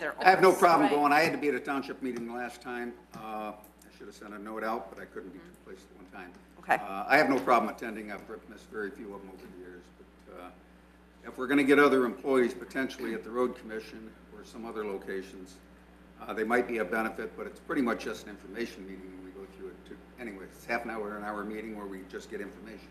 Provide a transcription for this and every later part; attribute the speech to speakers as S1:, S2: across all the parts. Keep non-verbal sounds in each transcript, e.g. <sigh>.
S1: their office.
S2: I have no problem
S1: Right.
S2: going. I had to be at a township meeting last time. Uh, I should have sent a note out, but I couldn't be two places at one time.
S1: Mm-hmm. Okay.
S2: Uh, I have no problem attending. I've missed very few of them over the years. But uh, if we're going to get other employees potentially at the road commission or some other locations, uh, they might be a benefit, but it's pretty much just an information meeting when we go through it too. Anyway, it's half an hour, an hour meeting where we just get information.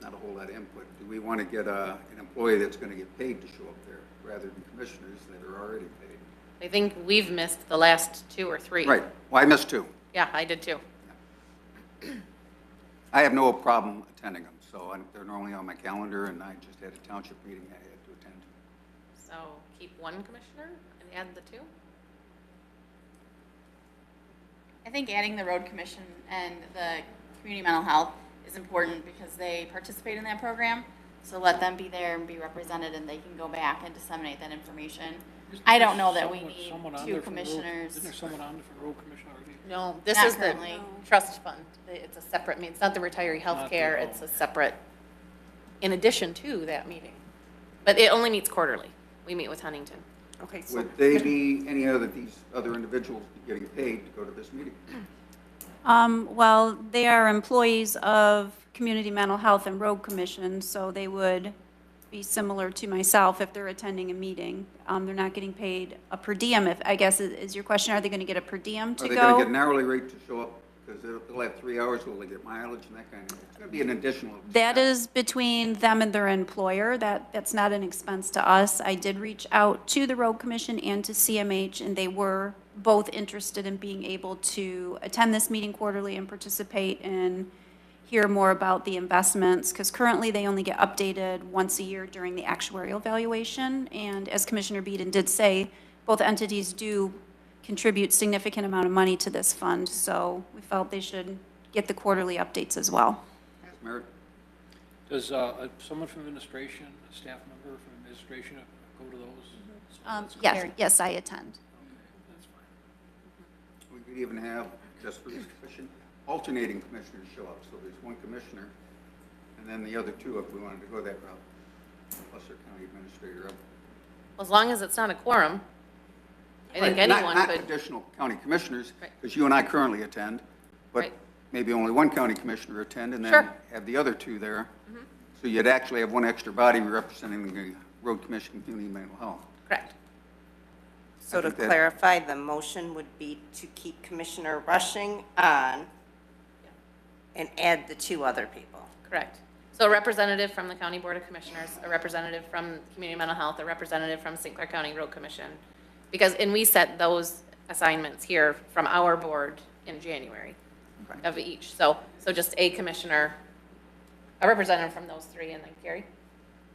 S2: Not a whole lot of input. Do we want to get a, an employee that's going to get paid to show up there rather than commissioners that are already paid?
S3: I think we've missed the last two or three.
S2: Right. Well, I missed two.
S3: Yeah, I did too.
S2: I have no problem attending them, so I'm- they're normally on my calendar, and I just had a township meeting I had to attend.
S3: So keep one commissioner and add the two?
S4: I think adding the road commission and the community mental health is important because they participate in that program. So let them be there and be represented and they can go back and disseminate that information. I don't know that we
S5: Someone-
S4: need
S5: someone on
S4: two
S5: there from road-
S4: commissioners.
S5: Isn't there someone on there from road commission already?
S3: No, this
S4: Not
S3: is the
S4: currently.
S3: trust fund. It's a separate, I mean, it's not the retiree
S5: Not the-
S3: healthcare,
S5: oh.
S3: it's a separate, in addition to that meeting. But it only meets quarterly. We meet with Huntington.
S1: Okay, so,
S2: Would they be, any other, these other individuals be getting paid to go to this meeting?
S6: Um, Well, they are employees of Community Mental Health and Road Commission, so they would be similar to myself if they're attending a meeting. Um, They're not getting paid a per diem, if, I guess, is- is your question, are they going to get a per diem to
S2: Are they
S6: go?
S2: going to get an hourly rate to show up? Because they'll they'll have three hours, will they get mileage and that kind of, it's going to be an additional.
S6: That is between them and their employer. That, that's not an expense to us. I did reach out to the road commission and to CMH, and they were both interested in being able to attend this meeting quarterly and participate and hear more about the investments, because currently they only get updated once a year during the actuarial valuation. And as Commissioner Beeden did say, both entities do contribute significant amount of money to this fund, so we felt they should get the quarterly updates as well.
S2: Yes, Merit?
S5: Does, uh, someone from administration, a staff member from administration uh, go to those?
S4: Mm-hmm.
S5: So
S6: Um,
S5: that's-
S6: yes, yes, I attend.
S5: That's fine.
S2: We could even have, just for this commission, alternating commissioners show up, so there's one commissioner, and then the other two, if we wanted to go that route, plus our county administrator up.
S3: As long as it's not a quorum, I think
S2: Right, not-
S3: anyone
S2: not
S3: could.
S2: additional county commissioners,
S3: Right.
S2: because you and I currently attend, but
S3: Right.
S2: maybe only one county commissioner attend, and then
S3: Sure. Mm-hmm.
S2: have the other two there. So you'd actually have one extra body representing the road commission, community mental health.
S3: Correct.
S1: so to
S2: think that-
S1: clarify, the motion would be to keep Commissioner Rushing on and add the two other people.
S3: Correct. So a representative from the County Board of Commissioners, a representative from Community Mental Health, a representative from St. Clair County Road Commission. Because, and we set those assignments here from our board in January of each. So, so just a commissioner, a representative from those three, and then Carrie?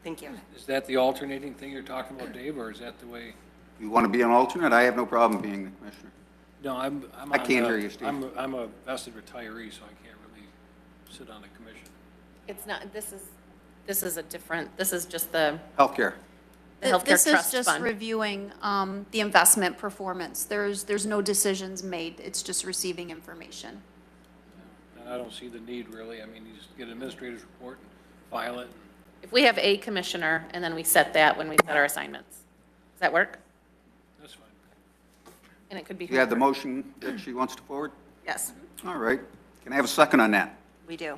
S1: Thank you.
S5: Is that the alternating thing you're talking about, Dave, or is that the way?
S2: You want to be an alternate? I have no problem being the commissioner.
S5: No, I'm, I'm.
S2: I
S5: on
S2: can't
S5: the-
S2: hear you, Steve.
S5: I'm, I'm a vested retiree, so I can't really sit on a commission.
S3: It's not, this is, this is a different, this is just the
S2: Healthcare.
S3: the healthcare
S6: This is
S3: trust
S6: just
S3: fund.
S6: reviewing um, the investment performance. There's, there's no decisions made, it's just receiving information.
S5: And I don't see the need really. I mean, you just get an administrator's report and file it.
S3: If we have a commissioner, and then we set that when we set our assignments. Does that work?
S5: That's fine.
S3: And it could be.
S2: You have the
S3: whoever.
S2: motion that she wants to forward?
S1: Yes,
S2: All right. Can I have a second on that?
S1: we do.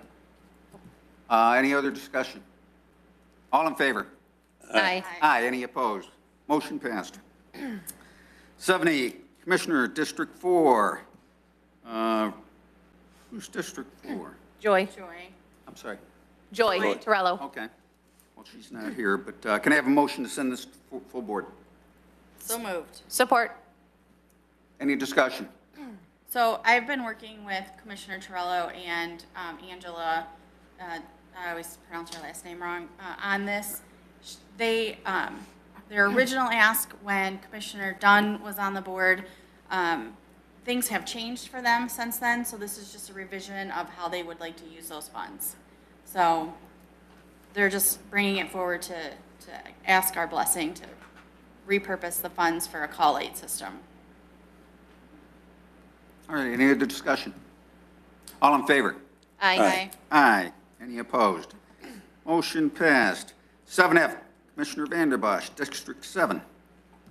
S2: Uh, Any other discussion? All in favor?
S3: Aye.
S2: Aye, any opposed? Motion passed. <clears throat> 70, Commissioner, District 4. Uh, Who's District 4?
S3: Joy,
S4: Joy.
S2: I'm sorry.
S3: Joy Torello.
S2: Okay. Well, she's not here, but uh, can I have a motion to send this to full- full board?
S4: So moved.
S3: Support.
S2: Any discussion?
S4: So I've been working with Commissioner Torello and um, Angela, uh, I always pronounce her last name wrong, uh, on this. Sh- They, um, their original ask when Commissioner Dunn was on the board, um, things have changed for them since then, so this is just a revision of how they would like to use those funds. So they're just bringing it forward to, to ask our blessing to repurpose the funds for a call aid system.
S2: All right, any other discussion? All in favor?
S3: Aye.
S2: Aye. Any opposed? Motion passed. 7F, Commissioner Vanderbosch, District 7.